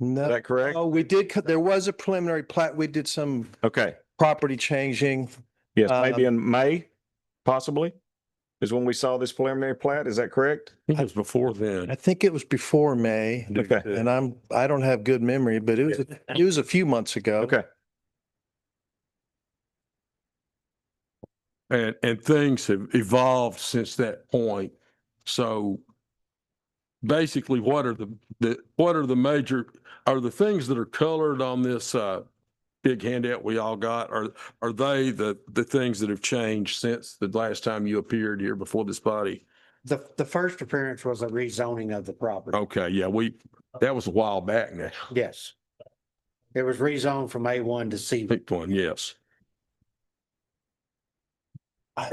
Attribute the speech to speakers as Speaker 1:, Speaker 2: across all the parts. Speaker 1: No.
Speaker 2: Is that correct?
Speaker 1: Oh, we did, cut- there was a preliminary plat, we did some
Speaker 2: Okay.
Speaker 1: property changing.
Speaker 2: Yes, maybe
Speaker 3: um,
Speaker 2: in May, possibly, is when we saw this preliminary plat. Is that correct?
Speaker 3: It was before
Speaker 1: I
Speaker 3: then.
Speaker 1: think it was before May,
Speaker 2: Okay.
Speaker 1: and I'm, I don't have good memory, but it was, it was a few months ago.
Speaker 2: Okay.
Speaker 3: And, and things have evolved since that point. So basically, what are the, the, what are the major, are the things that are colored on this, uh, big handout we all got, are, are they the, the things that have changed since the last time you appeared here before this body?
Speaker 4: The, the first appearance was a rezoning of the property.
Speaker 1: Oh.
Speaker 3: Okay, yeah, we, that was a while back now.
Speaker 4: Yes. It was rezoned from A one to C.
Speaker 3: Picked one, yes.
Speaker 4: I-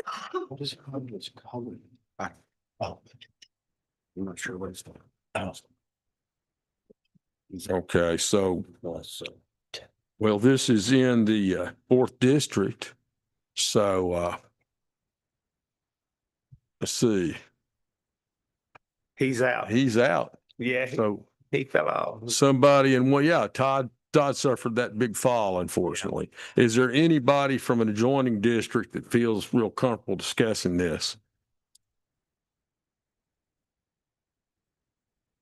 Speaker 4: What is it called? It's called. I- Oh. I'm not sure what it's. called. Oh.
Speaker 3: Okay, so
Speaker 4: Well, so,
Speaker 3: Well, this is in the uh, fourth district, so uh, let's see,
Speaker 5: He's out.
Speaker 3: he's out.
Speaker 5: Yeah, he-
Speaker 3: So
Speaker 5: he fell off.
Speaker 3: somebody, and well, yeah, Todd, Todd suffered that big fall, unfortunately. Is there anybody from an adjoining district that feels real comfortable discussing this?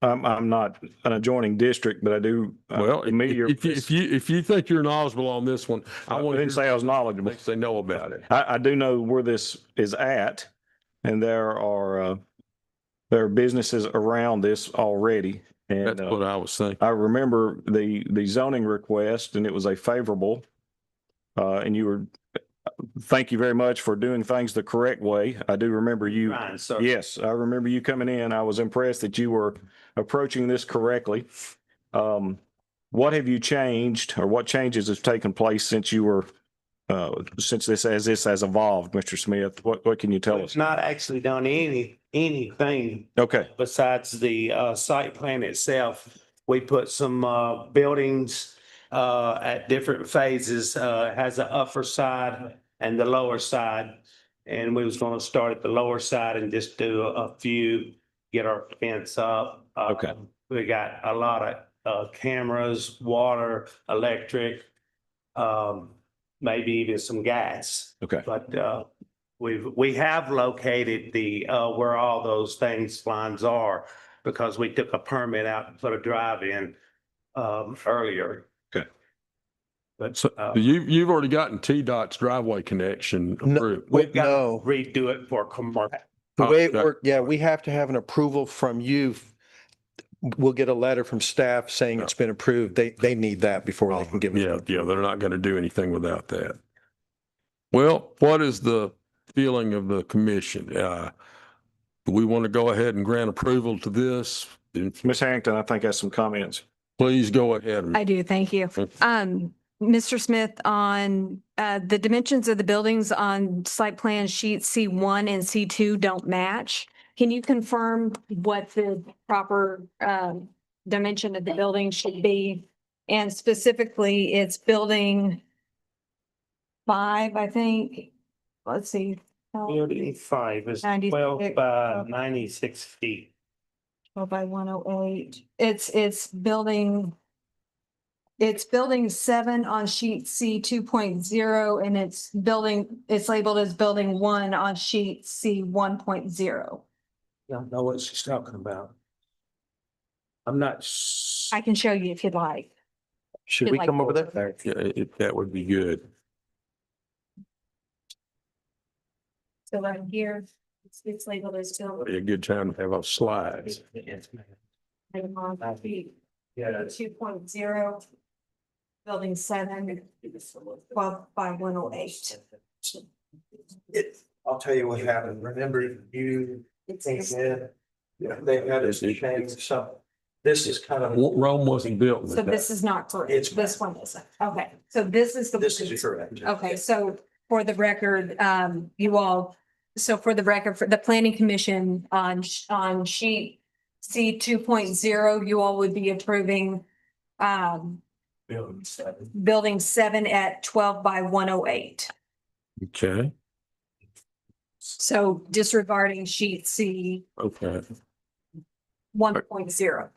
Speaker 2: I'm, I'm not an adjoining district, but I do. uh,
Speaker 3: Well, if
Speaker 2: familiar
Speaker 3: if you,
Speaker 2: with-
Speaker 3: if you, if you think you're knowledgeable on this one,
Speaker 2: I
Speaker 3: I want
Speaker 2: wouldn't
Speaker 3: to
Speaker 2: say I was knowledgeable.
Speaker 3: things they know about it.
Speaker 2: I, I do know where this is at, and there are, uh, there are businesses around this already. And
Speaker 3: That's
Speaker 2: uh,
Speaker 3: what I was thinking.
Speaker 2: I remember the, the zoning request, and it was a favorable. Uh, and you were, thank you very much for doing things the correct way. I do remember you.
Speaker 5: Ryan, sir.
Speaker 2: Yes, I remember you coming in. I was impressed that you were approaching this correctly. Um, what have you changed or what changes have taken place since you were, uh, since this, as this has evolved, Mr. Smith? What, what can you tell us?
Speaker 5: It's not actually done any, anything
Speaker 2: Okay,
Speaker 5: besides the uh, site plan itself. We put some uh, buildings uh, at different phases, uh, has the upper side and the lower side. And we was gonna start at the lower side and just do a few, get our fence up. Uh,
Speaker 2: Okay.
Speaker 5: We got a lot of uh, cameras, water, electric, um, maybe even some gas.
Speaker 2: okay.
Speaker 5: But uh, we've, we have located the, uh, where all those things lines are because we took a permit out and put a drive in um, earlier.
Speaker 2: Okay.
Speaker 5: But
Speaker 3: So
Speaker 5: uh,
Speaker 3: you, you've already gotten T-Dot's driveway connection
Speaker 1: No,
Speaker 3: approved.
Speaker 1: Wait,
Speaker 5: we've got to
Speaker 1: no.
Speaker 5: redo it for commercial.
Speaker 1: The
Speaker 3: Oh,
Speaker 1: way it
Speaker 3: that-
Speaker 1: worked, yeah, we have to have an approval from you. We'll get a letter from staff saying it's been approved. They, they need that before they can give it.
Speaker 3: Yeah, yeah, they're not going to do anything without that. Well, what is the feeling of the commission? Uh, do we want to go ahead and grant approval to this? Then
Speaker 2: Ms. Harrington, I think has some comments.
Speaker 3: Please go ahead.
Speaker 6: I do, thank you. Um, Mr. Smith, on, uh, the dimensions of the buildings on site plan sheet C one and C two don't match. Can you confirm what the proper, um, dimension of the building should be? And specifically, it's building five, I think. Let's see.
Speaker 5: Building five is twelve
Speaker 6: 96.
Speaker 5: by ninety-six feet.
Speaker 6: Twelve by one oh eight. It's, it's building. It's building seven on sheet C two and it's building, it's labeled as building one on sheet C one
Speaker 4: Don't know what she's talking about.
Speaker 5: I'm not s-
Speaker 6: I can show you if you'd like.
Speaker 1: Should
Speaker 6: Should
Speaker 1: we
Speaker 6: like
Speaker 1: come over
Speaker 6: go
Speaker 1: there?
Speaker 6: over
Speaker 3: Yeah, it- That would be good.
Speaker 6: So right here, it's, it's labeled as building.
Speaker 3: Be a good time to have our slides.
Speaker 5: Yes, ma'am.
Speaker 6: Two
Speaker 5: Yeah,
Speaker 6: point zero. Building seven, twelve by one oh eight.
Speaker 7: It, I'll tell you what happened. Remember you, they
Speaker 6: It's,
Speaker 7: said, they had us change some. This is kind of,
Speaker 3: Wa- Rome wasn't built with
Speaker 6: so this
Speaker 3: that.
Speaker 6: is not correct.
Speaker 7: It's-
Speaker 6: This one isn't. Okay, so this is the.
Speaker 7: this is correct.
Speaker 6: Okay, so for the record, um, you all, so for the record, for the planning commission on, sh- on sheet C two you all would be approving, um,
Speaker 7: Building seven.
Speaker 6: building seven at twelve by one oh eight.
Speaker 3: Okay,
Speaker 6: So disregarding sheet C
Speaker 3: okay.
Speaker 6: one point zero.